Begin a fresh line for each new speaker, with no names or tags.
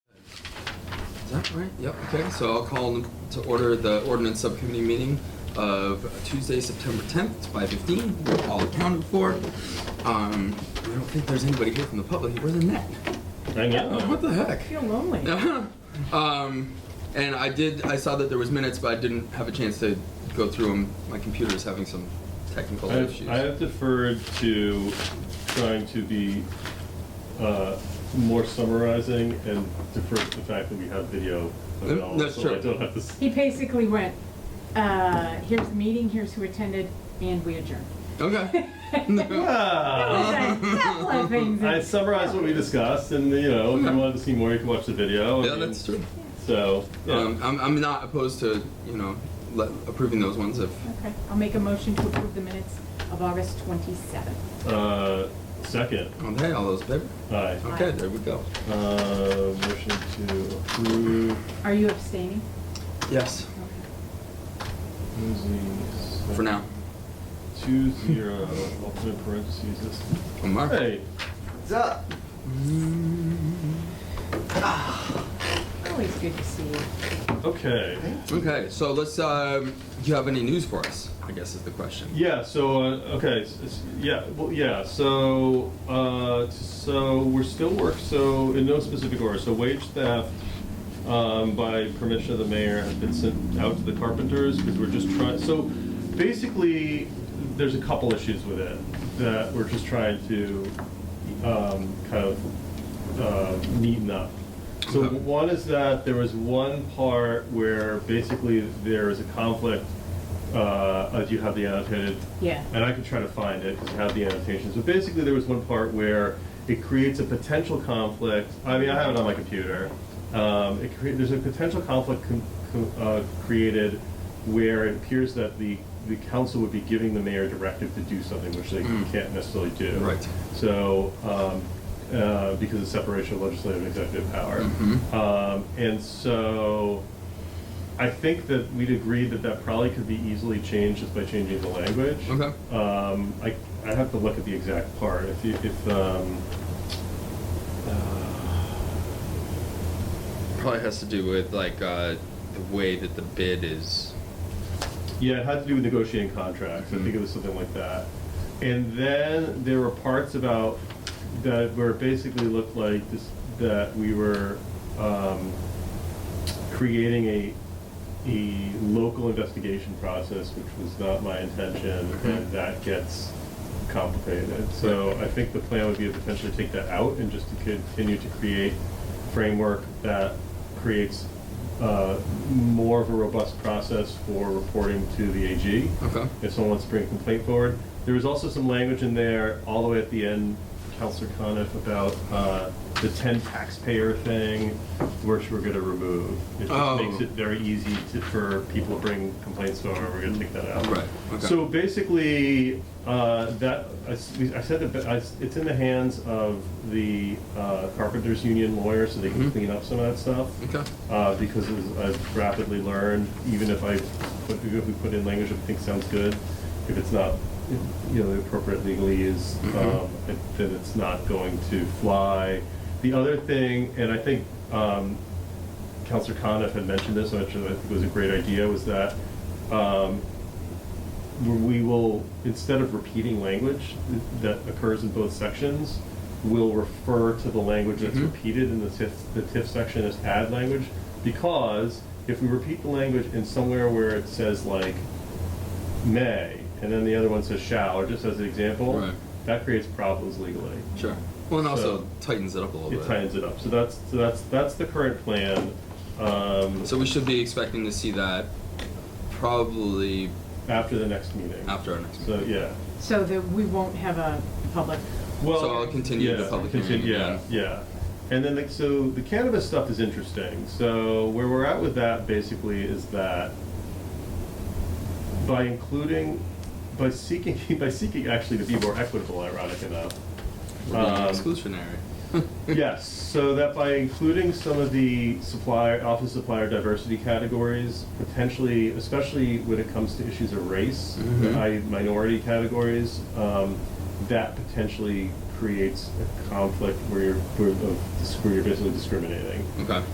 Yeah, all right, yep, okay, so I'll call to order the ordinance subcommittee meeting of Tuesday, September tenth, five fifteen, we're all accounted for. Um, I don't think there's anybody here from the public, where's Annette?
I
Oh,
know.
What the heck?
Feel lonely.
Um, and I did, I saw that there was minutes, but I didn't have a chance to go through them, my computer's having some technical
I have,
issues.
I have deferred to trying to be uh, more summarizing and defer to the fact that we have video of it all,
That's
so I
true.
don't have to. s-
He basically went, uh, here's the meeting, here's who attended, and we adjourned.
Okay,
It was
Ah!
a couple of things.
I summarized what we discussed, and you know, if you wanted to see more, you can watch the video. I
yeah,
mean,
that's true.
So, Oh, yeah.
Um, I'm, I'm not opposed to, you know, le- approving those ones if,
Okay, I'll make a motion to approve the minutes of August twenty-seventh.
uh, second,
okay, all those in favor?
aye.
Okay, there we go.
Uh, motion to approve.
Are you abstaining?
Yes.
Okay.
Lindsay's-
For now.
Two zero, alternate parentheses, this.
From Mark.
Hey,
What's up?
Always good to see you.
okay.
Okay, so let's. Um, do you have any news for us? I guess is the question.
Yeah, so, uh, okay, s- s- yeah, well, yeah, so, uh, t- so we're still work, so in no specific order, so wage theft, um, by permission of the mayor, has been sent out to the carpenters, because we're just trying, so basically, there's a couple issues with it that we're just trying to, um, kind of, uh, neaten up. So
Okay.
one is that there was one part where basically there is a conflict. Uh, uh, do you have the annotated?
Yeah.
And I can try to find it because I have the annotations. But basically, there was one part where it creates a potential conflict. I mean, I have it on my computer. Um, it cre- there's a potential conflict com- com- uh, created where it appears that the, the council would be giving the mayor directive to do something which they
Mm.
can't necessarily do.
Right.
So, um, uh, because of separation of legislative and executive power.
Mhm.
Um, and so, I think that we'd agree that that probably could be easily changed just by changing the language.
Okay.
Um, I, I have to look at the exact part, if you, if, um, uh,
Probably has to do with like uh, the way that the bid is.
Yeah, it had to do with negotiating contracts. I think it was something like that. And then there were parts about that where it basically looked like this, that we were um, creating a a local investigation process, which was not my intention, and that gets complicated. So I think the plan would be to potentially take that out and just to continue to create framework that creates uh, more of a robust process for reporting to the AG
Okay.
if someone wants to bring a complaint forward. There was also some language in there, all the way at the end, Counselor Coniff, about uh, the 10 taxpayer thing, which we're going to remove. It just
Oh.
makes it very easy to, for people to bring complaints forward, we're going to take that out.
Right, okay.
So basically, uh, that, I s- we- I said that, I s- it's in the hands of the uh, carpenters union lawyer, so they can
Mhm.
clean up some of that stuff
Okay.
uh, because as I've rapidly learned, even if I put, if we put in language that we think sounds good, if it's not, you know, the appropriate legally is, um, it- then it's not going to fly. The other thing, and I think um, Counselor Coniff had mentioned this, which I think was a great idea, was that um, we will, instead of repeating language that occurs in both sections, we'll refer to the language that's
Mhm.
repeated in the TIF, the TIF section as add language, because if we repeat the language in somewhere where it says like may, and then the other one says shall, or just as an example,
Right.
that creates problems legally.
Sure. Well, and also
So-
tightens it up a little
It
bit.
tightens it up. So that's, so that's, that's the current plan. Um,
So we should be expecting to see that probably
after the next meeting.
after our next meeting.
So, yeah.
So that we won't have a public,
Well,
So I'll continue the
yeah,
public
continue-
hearing
Yeah,
again.
yeah. And then, like, so the cannabis stuff is interesting. So where we're at with that basically is that by including, by seeking, by seeking actually to be more equitable, ironic enough.
We're being
um,
exclusionary.
Yes, so that by including some of the supplier, office supplier diversity categories, potentially, especially when it comes to issues of race,
Mhm.
i.e. minority categories, um, that potentially creates a conflict where you're, where, of, where you're basically discriminating.
okay.